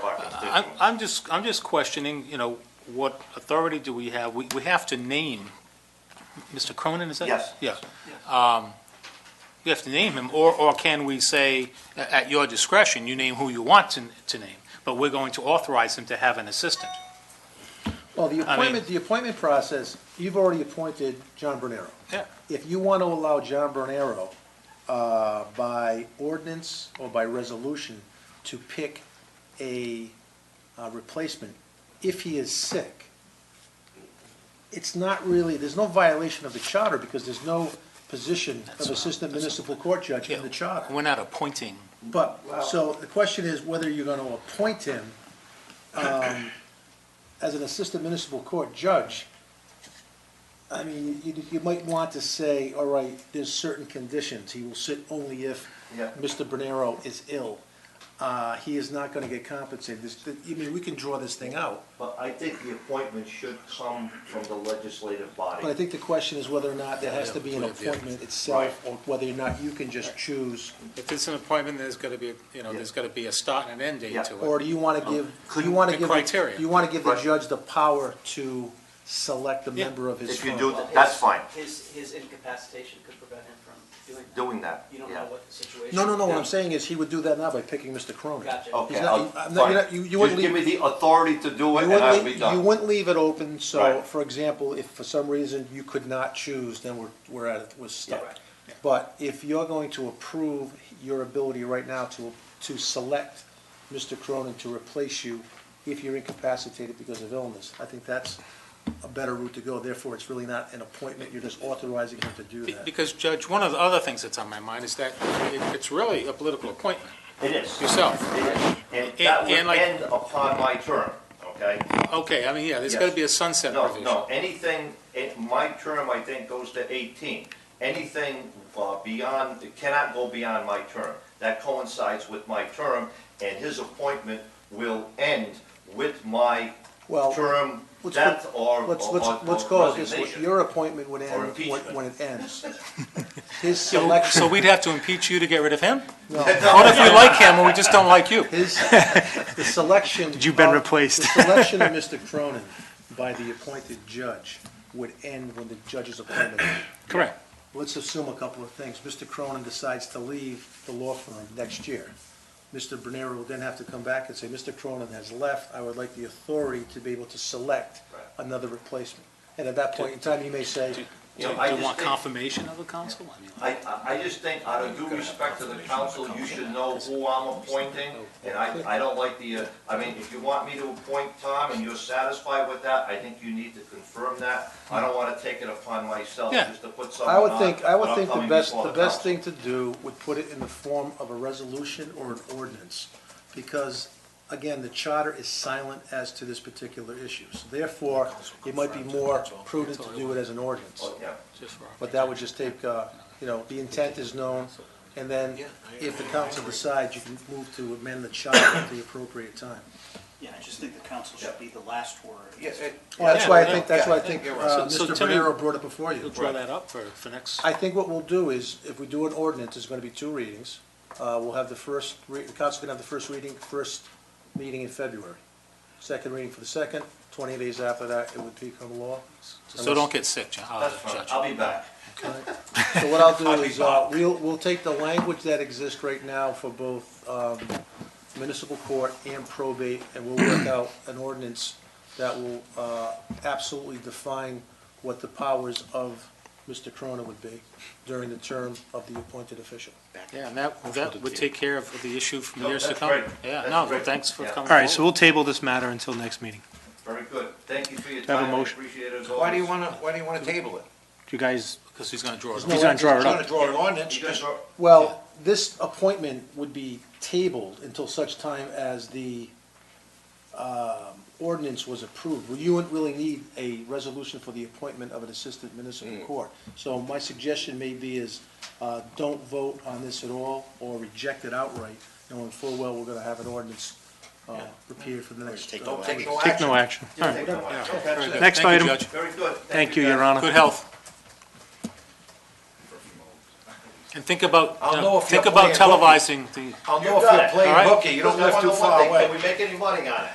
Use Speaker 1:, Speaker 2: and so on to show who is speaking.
Speaker 1: I'm, I'm just, I'm just questioning, you know, what authority do we have? We, we have to name, Mr. Cronin, is that?
Speaker 2: Yes.
Speaker 1: Yeah. Um, You have to name him, or, or can we say, a- at your discretion, you name who you want to, to name, but we're going to authorize him to have an assistant?
Speaker 3: Well, the appointment, the appointment process, you've already appointed John Bernero.
Speaker 1: Yeah.
Speaker 3: If you want to allow John Bernero, uh, by ordinance or by resolution, to pick a, uh, replacement, if he is sick, it's not really, there's no violation of the charter, because there's no position of assistant municipal court judge in the charter.
Speaker 1: We're not appointing,
Speaker 3: But, so the question is whether you're gonna appoint him, um, as an assistant municipal court judge. I mean, you, you might want to say, all right, there's certain conditions, he will sit only if
Speaker 2: Yeah.
Speaker 3: Mr. Bernero is ill. Uh, he is not gonna get compensated, this, I mean, we can draw this thing out,
Speaker 2: But I think the appointment should come from the legislative
Speaker 3: but I
Speaker 2: body.
Speaker 3: think the question is whether or not there has to be an appointment itself, or whether or not you can just choose,
Speaker 4: If it's an appointment, there's gotta be, you know, there's gotta be a start and an end
Speaker 2: Yeah.
Speaker 4: date to it.
Speaker 3: Or do you want to give, you want to
Speaker 4: The
Speaker 3: give,
Speaker 4: Um, criteria.
Speaker 3: you want to give the
Speaker 2: Right.
Speaker 3: judge the power to select a
Speaker 4: Yeah.
Speaker 3: member of his
Speaker 2: If you
Speaker 3: firm?
Speaker 2: do,
Speaker 5: Well,
Speaker 2: th- that's
Speaker 5: his-
Speaker 2: fine,
Speaker 5: His, his incapacitation could prevent him from doing that.
Speaker 2: doing that,
Speaker 5: You don't
Speaker 2: yeah.
Speaker 5: know what the situation.
Speaker 3: No, no, no, what I'm
Speaker 2: Yeah.
Speaker 3: saying is he would do that now by picking Mr. Cronin.
Speaker 5: Gotcha.
Speaker 2: Okay,
Speaker 3: He's not-
Speaker 2: I'll-
Speaker 3: I'm not- you're not-
Speaker 2: fine.
Speaker 3: you- you
Speaker 2: Just
Speaker 3: wouldn't
Speaker 2: give me
Speaker 3: leave-
Speaker 2: the authority to do it,
Speaker 3: You
Speaker 2: and I'll
Speaker 3: wouldn't,
Speaker 2: be
Speaker 3: leave- you
Speaker 2: done.
Speaker 3: wouldn't leave it open, so,
Speaker 2: Right.
Speaker 3: for example, if for some reason you could not choose, then we're, we're at, it. we're stuck.
Speaker 5: right.
Speaker 3: But if you're going to approve your ability right now to, to select Mr. Cronin to replace you if you're incapacitated because of illness, I think that's a better route to go. Therefore, it's really not an appointment, you're just authorizing him to do
Speaker 4: Be-
Speaker 3: that.
Speaker 4: Because Judge, one of the other things that's on my mind is that it- it's really a political appointment
Speaker 2: It is.
Speaker 4: yourself.
Speaker 2: It is. And that
Speaker 4: And-
Speaker 2: would
Speaker 4: and like-
Speaker 2: end upon my term, okay?
Speaker 4: Okay, I mean, yeah, there's gotta be a sunset
Speaker 2: No,
Speaker 4: provision.
Speaker 2: no, anything, it- my term, I think, goes to 18. Anything uh, beyond, it cannot go beyond my term. That coincides with my term, and his appointment will end with my
Speaker 3: Well,
Speaker 2: term
Speaker 3: let's
Speaker 2: death
Speaker 3: put-
Speaker 2: or
Speaker 3: Let's,
Speaker 2: or-
Speaker 3: let's,
Speaker 2: or
Speaker 3: let's call it this, way.
Speaker 2: resignation.
Speaker 3: your appointment would
Speaker 2: Or
Speaker 3: end when,
Speaker 2: impeachment.
Speaker 3: when it ends. His
Speaker 1: So-
Speaker 3: selection,
Speaker 1: so we'd have to impeach you to get rid of him?
Speaker 3: no,
Speaker 1: What if we like him and we just don't like you?
Speaker 3: his, the selection.
Speaker 6: You've been
Speaker 3: of-
Speaker 6: replaced.
Speaker 3: The selection of Mr. Cronin by the appointed judge would end when the judge's appointment.
Speaker 1: Correct.
Speaker 3: Let's assume a couple of things. Mr. Cronin decides to leave the law firm next year. Mr. Bernero will then have to come back and say, Mr. Cronin has left, I would like the authority to be able to select another replacement. And at that point in time, you may say,
Speaker 2: You
Speaker 1: Do
Speaker 2: know,
Speaker 1: do
Speaker 2: I
Speaker 1: you
Speaker 2: just
Speaker 1: want
Speaker 2: think-
Speaker 1: confirmation of a council? I mean,
Speaker 2: I, I I just think out of due respect to the council, you should know who I'm appointing, and I, I don't like the, uh, I mean, if you want me to appoint Tom and you're satisfied with that, I think you need to confirm that. I don't wanna take it upon myself
Speaker 1: Yeah.
Speaker 2: just to put someone
Speaker 3: I
Speaker 2: on.
Speaker 3: would think, I would
Speaker 2: without
Speaker 3: think the
Speaker 2: coming
Speaker 3: best,
Speaker 2: before
Speaker 3: the best
Speaker 2: council.
Speaker 3: thing to do would put it in the form of a resolution or an ordinance. Because, again, the charter is silent as to this particular issue. So therefore, it might be more prudent to do it as an ordinance.
Speaker 2: Oh, Yeah,
Speaker 4: Just for our-
Speaker 3: But that would just take, uh, you know, the intent is known, and then if the council decides, you can move to amend the charter at the appropriate time.
Speaker 7: Yeah, I just think the council should be the last word.
Speaker 3: Well, that's why I think, that's why I think uh,
Speaker 1: So- so
Speaker 3: Mr.
Speaker 1: tell me-
Speaker 3: Barrero brought it before you.
Speaker 1: You'll draw that up for, for next?
Speaker 3: I think what we'll do is, if we do an ordinance, it's gonna be two readings. Uh, we'll have the first, re- the council can have the first reading, first meeting in February. Second reading for the second, twenty days after that, it would become law.
Speaker 1: So don't get sick, Ju- uh,
Speaker 2: that's fine,
Speaker 1: Judge.
Speaker 2: I'll be back.
Speaker 3: So what I'll do is, uh, we'll, we'll take the language that exists right now for both, um, municipal court and probate, and we'll work out an ordinance that will, uh, absolutely define what the powers of Mr. Corona would be during the term of the appointed official.
Speaker 1: Yeah, and that, that would take care of the issue from
Speaker 2: No,
Speaker 1: years to
Speaker 2: that's
Speaker 1: come.
Speaker 2: great.
Speaker 1: Yeah,
Speaker 2: That's
Speaker 1: no,
Speaker 2: great.
Speaker 1: thanks for
Speaker 2: Yeah.
Speaker 1: coming.
Speaker 6: All right, so
Speaker 1: forward.
Speaker 6: we'll table this matter until next meeting.
Speaker 2: Very good, thank you for your
Speaker 6: have a
Speaker 2: time, I
Speaker 6: motion?
Speaker 2: appreciate it as always.
Speaker 8: Why do you wanna, why do you wanna table it?
Speaker 6: You guys,
Speaker 1: Because he's gonna draw it.
Speaker 6: he's gonna draw
Speaker 8: You're
Speaker 6: it
Speaker 8: gonna
Speaker 6: up.
Speaker 8: draw an ordinance,
Speaker 2: You guys
Speaker 8: just
Speaker 2: are-
Speaker 3: Well, this appointment would be tabled until such time as the um, ordinance was approved. Well, You wouldn't really need a resolution for the appointment of an assistant municipal court. So my suggestion may be is, uh, don't vote on this at all, or reject it outright, knowing full well we're gonna have an ordinance uh, prepared for the next.
Speaker 8: take
Speaker 3: uh,
Speaker 8: no
Speaker 3: two
Speaker 8: action.
Speaker 3: weeks.
Speaker 6: Take no action. All right,
Speaker 2: Take the mic.
Speaker 1: Yeah.
Speaker 2: Okay.
Speaker 1: Very good.
Speaker 6: Next
Speaker 1: Thank you,
Speaker 6: item.
Speaker 1: Judge.
Speaker 2: Very good.
Speaker 6: thank you,
Speaker 2: guys.
Speaker 6: Your Honor.
Speaker 1: Good health. And think about,
Speaker 2: I'll
Speaker 1: you
Speaker 2: know
Speaker 1: know,
Speaker 2: if you're
Speaker 1: think about
Speaker 2: playing
Speaker 1: televising the.
Speaker 2: I'll
Speaker 9: You
Speaker 2: know
Speaker 9: got
Speaker 2: if you're
Speaker 9: it.
Speaker 1: All
Speaker 2: playing
Speaker 1: right.
Speaker 2: hooky, you don't live too far away.
Speaker 9: Can we make any money on it?